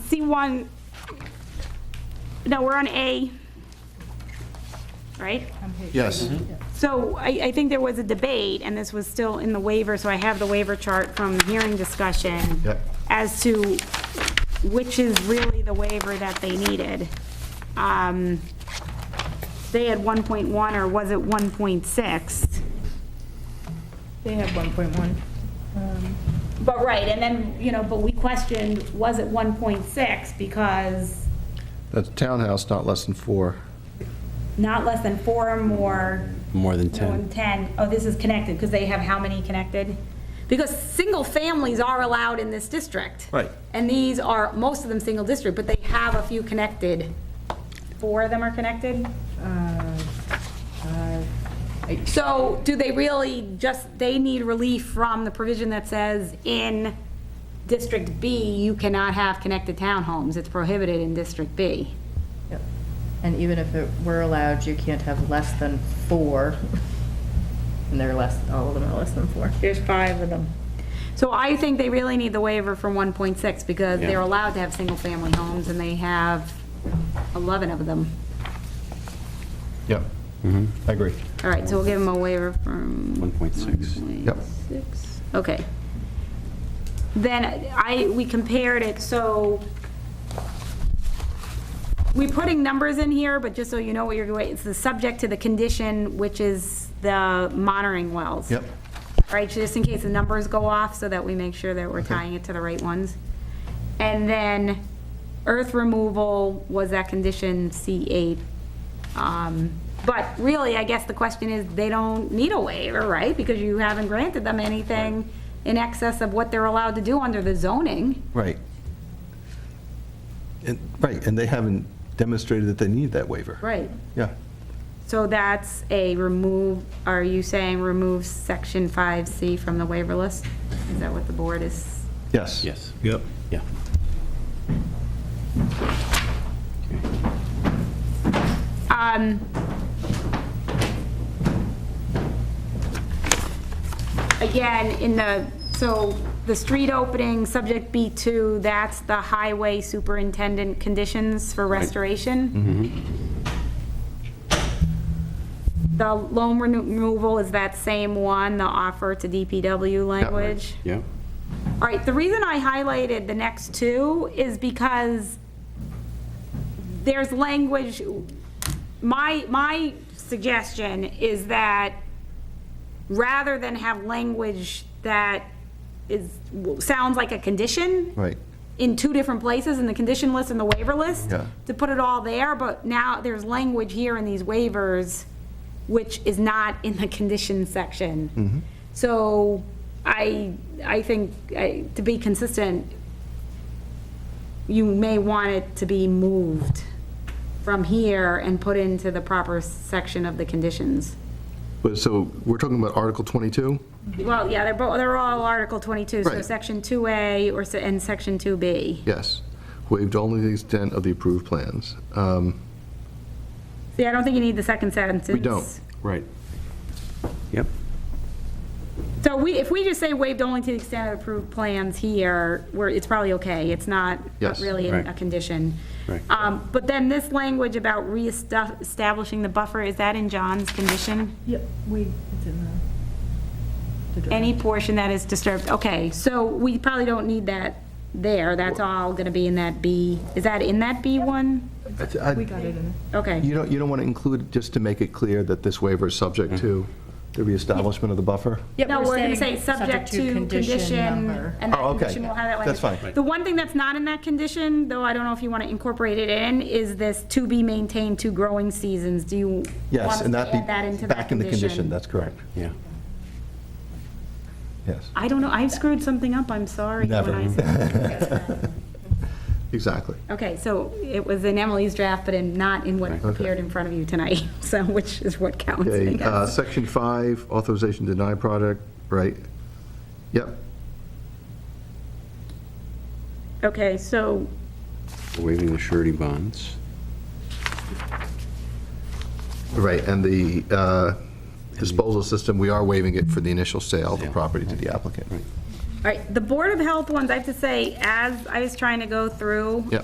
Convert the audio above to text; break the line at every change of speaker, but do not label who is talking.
see one, no, we're on A, right?
Yes.
So I, I think there was a debate, and this was still in the waiver, so I have the waiver chart from hearing discussion
Yep.
as to which is really the waiver that they needed. Um, They had 1.1, or was it 1.6?
They have 1.1. Um,
But, right, and then, you know, but we questioned, was it 1.6? Because
That's townhouse, not less than four.
not less than four or more.
More than
no,
10.
10, oh, this is connected, because they have how many connected? Because single families are allowed in this district.
Right.
And these are, most of them, single district, but they have a few connected. Four of them are connected?
uh, uh,
So do they really just, they need relief from the provision that says in District B, you cannot have connected townhomes? It's prohibited in District B.
yep. And even if it were allowed, you can't have less than four. And they're less, all of them are less than four.
There's five of them. So I think they really need the waiver for 1.6 because they're
Yeah.
allowed to have single-family homes and they have 11 of them.
Yep. I agree.
All right, so we'll give them a waiver from.
1.6.
Yep.
1.6. okay. Then I, we compared it, so we're putting numbers in here, but just so you know what you're, it's the subject to the condition, which is the monitoring wells.
Yep.
All right, just in case the numbers go off, so that we make sure that we're tying it to the right ones. And then earth removal was that condition C8. Um, But really, I guess the question is, they don't need a waiver, right? Because you haven't granted them anything in excess of what they're allowed to do under the zoning.
Right. And, right, and they haven't demonstrated that they need that waiver.
Right.
Yeah.
So that's a remove, are you saying remove section 5C from the waiver list? Is that what the board is?
Yes.
Yes.
Yep.
Yeah.
Um, Again, in the, so the street opening, subject B2, that's the highway superintendent conditions for restoration. The loan reno- removal is that same one, the offer to DPW language.
Yeah.
All right, the reason I highlighted the next two is because there's language, my, my suggestion is that rather than have language that is, sounds like a condition.
Right.
In two different places, in the condition list and the waiver list.
Yeah.
To put it all there, but now there's language here in these waivers, which is not in the condition section.
Mm-hmm.
So I, I think, I- to be consistent, you may want it to be moved from here and put into the proper section of the conditions.
But so we're talking about Article 22?
Well, yeah, they're both, they're all Article 22, so
Right.
Section 2A or, se- and Section 2B.
Yes. Waived only to the extent of the approved plans. Um,
See, I don't think you need the second sentence.
We don't.
Right. Yep.
So we, if we just say waived only to the extent of approved plans here, where it's probably okay, it's not
Yes.
really
Right.
a condition.
Right.
Um, But then this language about reestablishing the buffer, is that in John's condition?
Yep, we, it's in the. the
Any
draft.
portion that is disturbed, okay, so we probably don't need that there, that's all gonna be in that B, is that in that B one?
I th- I-
We got it in there.
Okay,
You don't, you don't want to include, just to make it clear that this waiver is subject to the reestablishment of the buffer?
Yep,
no, we're gonna say subject to condition,
number.
and that
Oh, okay.
condition will have that language.
That's fine.
The one thing that's not in that condition, though I don't know if you wanna incorporate it in, is this to be maintained two growing seasons, do you want us
Yes, and
to
that be.
add that into that condition?
Back in the condition, that's correct.
Yeah.
Yes.
I don't know, I screwed something up, I'm sorry. when
Never.
I said-
Exactly.
Okay, so it was in Emily's draft, but in, not in what
Right.
Okay.
appeared in front of you tonight, so, which is what counts, I
Okay, uh,
guess.
section five, authorization to deny product, right? Yep,
Okay, so,
Waiving the surety bonds.
right, and the uh, disposal system, we are waiving it for the initial sale of the
Sale,
property to the applicant.
all right, the Board of Health ones, I have to say, as I was trying to go through,
Yep.